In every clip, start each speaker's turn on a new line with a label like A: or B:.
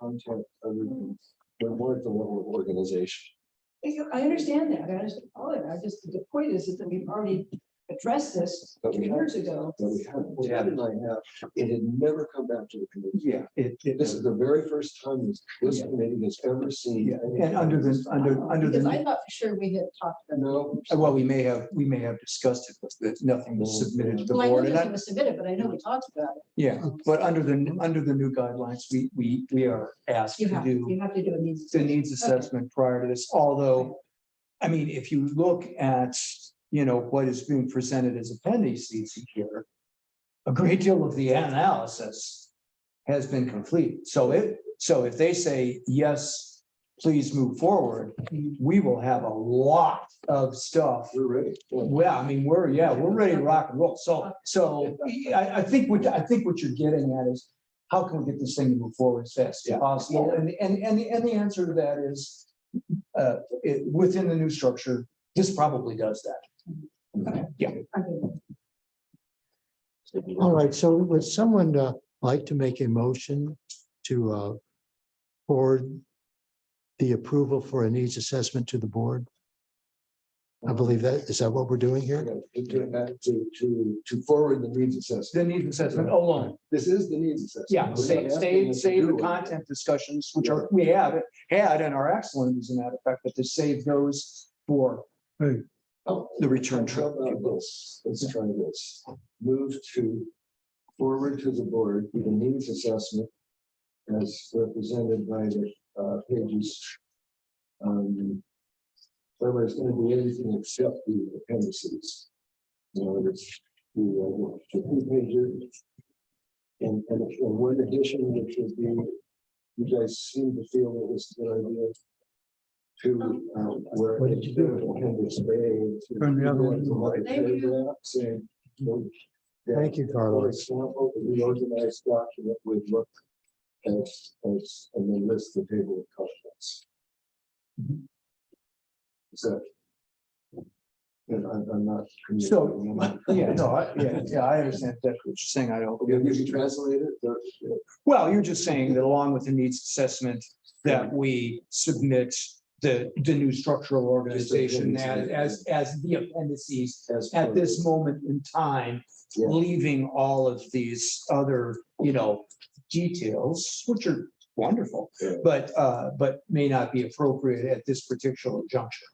A: content of the, we're more at the level of organization.
B: I- I understand that, I understand all of it, I just, the point is, is that we've already addressed this
A: But we
B: years ago.
A: that we have, well, Ted and I have, it had never come back to the committee.
C: Yeah, it, it
A: This is
C: is,
A: the very first time this, this committee has ever seen.
C: yeah, and under the, under, under
B: Uh, Because I
C: the,
B: thought for sure we had talked about.
A: No.
C: well, we may have, we may have discussed it, but that nothing was submitted to the
B: Well, I know
C: board, and
B: that
C: I,
B: was submitted, but I know we talked about it.
C: yeah, but under the, under the new guidelines, we, we, we are asked
B: You
C: to
B: have,
C: do
B: you have to do a needs.
C: the needs assessment prior to this, although, I mean, if you look at, you know, what is being presented as appendices here, a great deal of the analysis has been complete. So if, so if they say, yes, please move forward, we will have a lot of stuff.
A: We're ready.
C: Well, I mean, we're, yeah, we're ready to rock and roll. So, so I, I think what, I think what you're getting at is how can we get this thing to move forward as fast as
A: Yeah.
C: possible? And, and, and, the- and the answer to that is, uh, it, within the new structure, this probably does that.
D: All right, so would someone uh, like to make a motion to uh, forward the approval for a needs assessment to the board? I believe that, is that what we're doing here?
A: To do that, to, to, to forward the needs assessment.
C: The needs assessment alone,
A: This is the needs assessment.
C: yeah,
A: We're
C: save,
A: not asking
C: save,
A: them to
C: save the
A: do it.
C: content discussions, which are, we have had and are excellent as a matter of fact, but to save those for
A: Oh,
C: the return
A: How
C: trip.
A: about this? Let's try this. Move to, forward to the board, the needs assessment as represented by the uh, pages. Um, Whether it's going to be anything except the appendices. You know, it's the, uh, the two pages. And, and and one addition, which would be, you guys seem to feel that this is a good idea. To, uh, where.
D: What did you do?
A: Appendix A to-
C: Turn the other one.
A: to like a
B: Thank you.
A: paragraph saying, you know, that-
D: Thank you,
A: for
D: Carlos.
A: example, the reorganized document would look as, as, and then list the table of contents. Is that? And I'm, I'm not. communicating.
C: Yeah, no, I, yeah, yeah, I understand that, what you're saying, I don't.
A: Okay, Did you translate it? The-
C: Well, you're just saying that along with the needs assessment, that we submit the, the new structural organization as, as, as the appendices
A: as
C: at
A: per-
C: this moment in time,
A: Yeah.
C: leaving all of these other, you know, details, which are wonderful,
A: Yeah.
C: but, uh, but may not be appropriate at this particular juncture.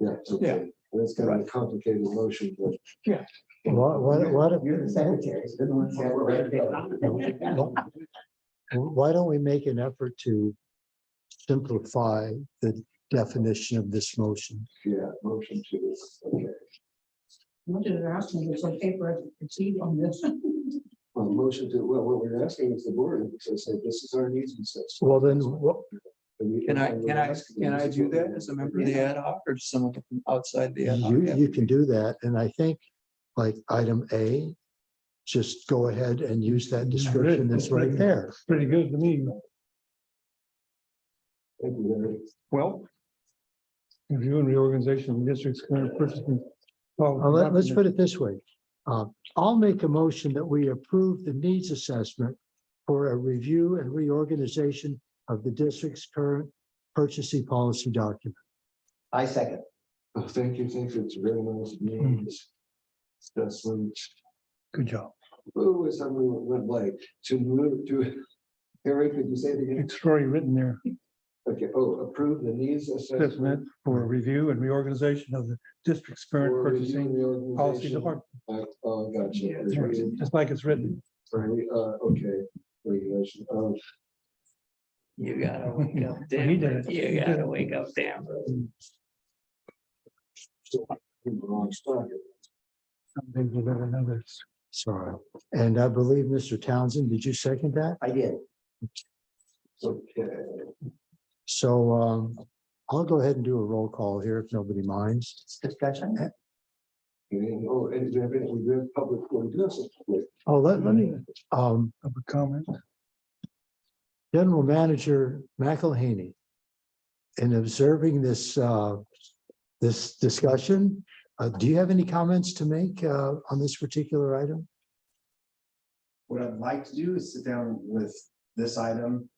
A: Yeah, it's okay.
C: Yeah.
A: And It's kind of a complicated motion, but.
C: Yeah.
D: What, what, what-
A: You're the secretary. it's been on for a while.
D: why don't we make an effort to simplify the definition of this motion?
A: Yeah, motion to, okay.
B: What did it ask me, it's on paper, I can see on this.
A: Well, motion to, well, what we're asking is the board to say, this is our needs assessment.
D: Well, then, what,
A: And we-
C: Can I,
A: and we're
C: can I,
A: asking
C: can
A: them
C: I
A: to
C: do
A: vote
C: that
A: on
C: as
A: it.
C: a member of the ad hoc or someone from outside the ad hoc?
D: You, you can do that, and I think, like, item A, just go ahead and use that description that's right there.
E: Pretty good to me,
A: Thank you, Larry.
C: Well,
E: reviewing reorganization of districts, current purchasing.
D: Well, let, us put it this way. Uh, I'll make a motion that we approve the needs assessment for a review and reorganization of the district's current purchasing policy document.
F: I second.
A: Oh, Thank you, thank you. It's very nice
E: Hmm.
A: news. That's when,
E: Good job.
A: oh, it's something that went blank. To move to, Harry, could you say it again?
E: It's already written there,
A: Okay, oh, approve the needs assessment.
E: assessment for a review and reorganization of the district's current
A: for reviewing
E: purchasing
A: the
E: policy
A: organization.
E: department.
A: Uh, Oh,
E: Yeah,
A: gotcha.
E: it's right, Just like it's written.
A: Sorry, uh, okay. Regulation, um,
G: You gotta wake up,
E: He did
G: Denver.
E: it. He
G: You
E: did
G: gotta
E: it.
G: wake up, Denver.
A: still in the hmm, wrong spot.
E: Some things are better than others.
D: Sorry. And I believe, Mr. Townsend, did you second that?
F: I did.
A: Okay,
D: So, um, I'll go ahead and do a roll call here if nobody minds. Eh,
F: Discussion?
A: and, oh, and do you have any, we do have public, we do have some public.
D: Oh, let, let me, um,
E: Public comment.
D: General Manager McElhaney, in observing this, uh, this discussion, uh, do you have any comments to make uh, on this particular item?
H: What I'd like to do is sit down with this item